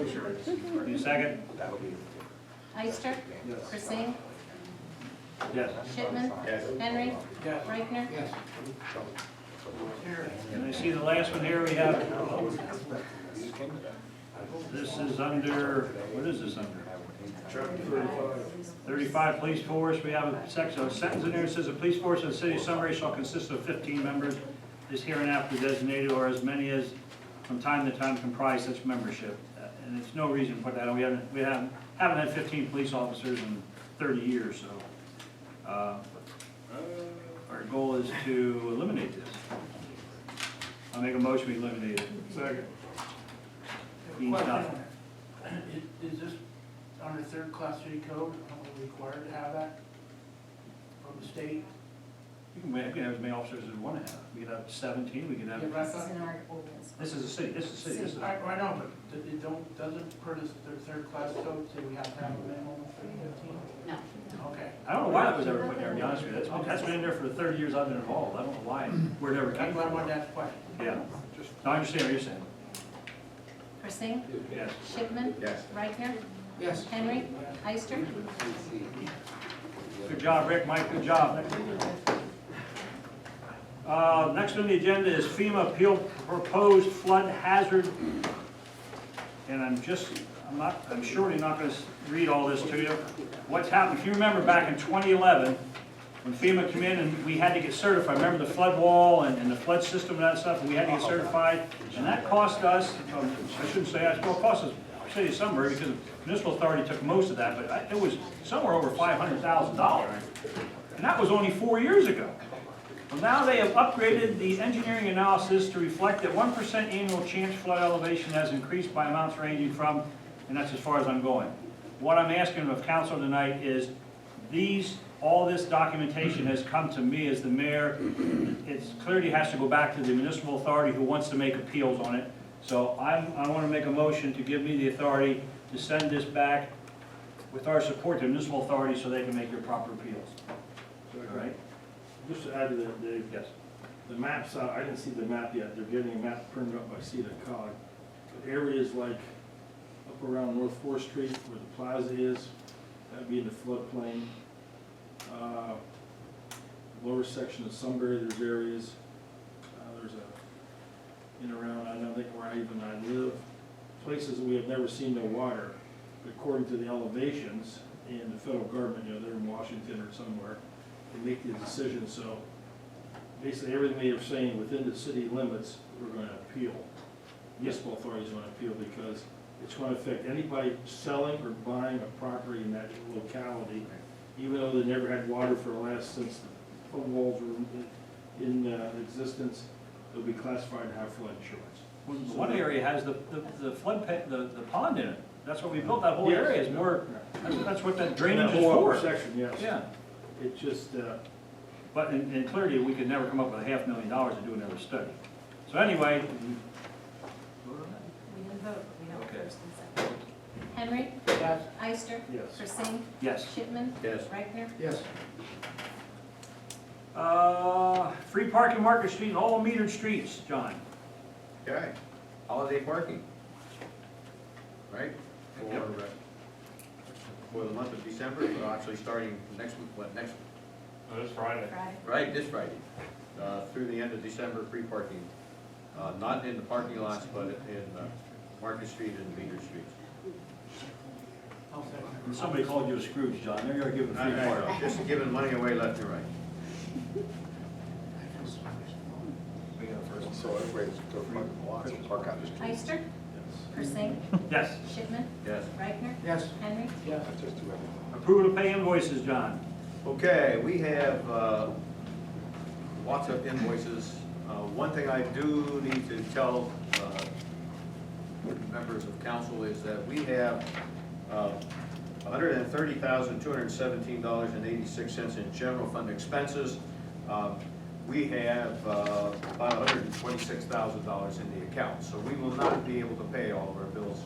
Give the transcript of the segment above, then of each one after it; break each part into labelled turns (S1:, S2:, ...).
S1: insurance. Need a second?
S2: That'll be.
S3: Ister,
S2: Yes.
S3: Persing,
S1: Yes.
S3: Shipman,
S2: Yes.
S3: Henry, Reichner.
S1: And I see the last one here we have, this is under, what is this under? Thirty-five police force, we have a section, a sentence in there that says, "The police force of the city of Sunbury shall consist of fifteen members, is hereinafter designated, or as many as from time to time comprise such membership." Uh, And it's no reason to put that, on. we haven't, we haven't, haven't had fifteen police officers in thirty years, so. uh, Our goal is to eliminate this. I'll make a motion, we eliminate it.
S4: Second.
S1: Dean's not.
S4: Is this under third class city code, are we required to have that from the state?
S1: You can, we can have as many officers as we want to have, we could have seventeen, we could have,
S4: Yeah, but I
S3: This is
S4: thought-
S3: in our ordinance.
S1: this is a city, this is a city, this is.
S4: I, I know, but th- it don't, doesn't per the third, third class code say we have to have a minimum of fifteen?
S3: No.
S4: Okay.
S1: I don't know why that was ever put there, to be honest with you, that's, been- that's been in there for the thirty years I've been involved, I don't know why, where it ever came
S4: That's why I wanted
S1: from.
S4: to ask the question.
S1: Yeah, no, I understand what you're saying,
S3: Persing,
S1: yes.
S3: Shipman,
S2: Yes.
S3: Reichner,
S4: Yes.
S3: Henry, Ister.
S1: Good job, Rick, Mike, good job. Uh, next on the agenda is FEMA appeal proposed flood hazard. And I'm just, I'm not, I'm surely not gonna s- read all this to you. What's happened, if you remember back in twenty eleven, when FEMA came in and we had to get certified, remember the flood wall and, and the flood system and that stuff, and we had to get certified? And that cost us, um, I shouldn't say us, well, it cost us, city of Sunbury, because the municipal authority took most of that, but I- it was somewhere over five hundred thousand dollars. And that was only four years ago. Well, now they have upgraded the engineering analysis to reflect that one percent annual chance flood elevation has increased by amounts ranging from, and that's as far as I'm going. What I'm asking of council tonight is, these, all this documentation has come to me as the mayor. It clearly has to go back to the municipal authority who wants to make appeals on it. So I'm, I want to make a motion to give me the authority to send this back with our support to municipal authority so they can make their proper appeals. All right?
S5: Just to add to the, the,
S1: Yes.
S5: the maps out, I didn't see the map yet, they're getting a map printed up by CEDA cog. But Areas like up around North Fourth Street where the plaza is, that'd be in the floodplain. Uh, Lower section of Sunbury, there's areas, uh, there's a, in around, I don't think where I even I live, places that we have never seen no water. But According to the elevations in the federal government, you know, they're in Washington or somewhere, they make the decision, so basically everything they are saying within the city limits, we're gonna appeal. Municipal authorities wanna appeal because it's gonna affect anybody selling or buying a property in that locality, even though they never had water for the last, since the walls were in- in uh, existence, they'll be classified to have flood insurance.
S1: Well, the One area has the, the- the flood, pa- the, the pond in it. That's what we built, that whole area is more, that's, that's what that drainage is
S5: That whole upper
S1: for.
S5: section, yes.
S1: Yeah,
S5: It just, uh,
S1: but, and, and clearly, we could never come up with a half million dollars to do another study. So anyway.
S3: We didn't vote, but we know
S1: Okay.
S3: first and second. Henry,
S4: Yes.
S3: Ister,
S5: yes.
S3: Persing,
S1: Yes.
S3: Shipman,
S2: Yes.
S3: Reichner.
S4: Yes.
S1: Uh, free parking Market Street and all metered streets, John.
S2: Okay, holiday parking. Right? For, uh, for the month of December, so actually starting next week, what, next,
S3: Friday.
S2: right, this Friday, uh, through the end of December, free parking. Uh, not in the parking lots, but in, uh, Market Street and Meter Street.
S4: I'll second.
S1: And Somebody called you a Scrooge, John, there you are giving free parking.
S2: Just giving money away left and right.
S1: We got a first.
S6: So everybody's go park in the lots and park on the street.
S3: Ister, Persing,
S1: Yes.
S3: Shipman,
S2: Yes.
S3: Reichner,
S4: Yes.
S3: Henry.
S4: Yes.
S6: Not just do everything.
S1: Approval to pay invoices, John.
S2: Okay, we have uh, lots of invoices. Uh, One thing I do need to tell uh, members of council is that we have uh, $130,217.86 in general fund expenses. Um, We have uh, about $126,000 in the account, so we will not be able to pay all of our bills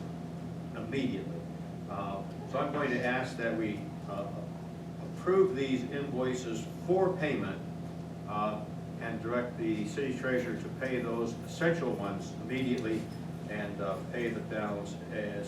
S2: immediately. Uh, So I'm going to ask that we uh, approve these invoices for payment uh, and direct the city treasurer to pay those essential ones immediately and uh, pay the balance as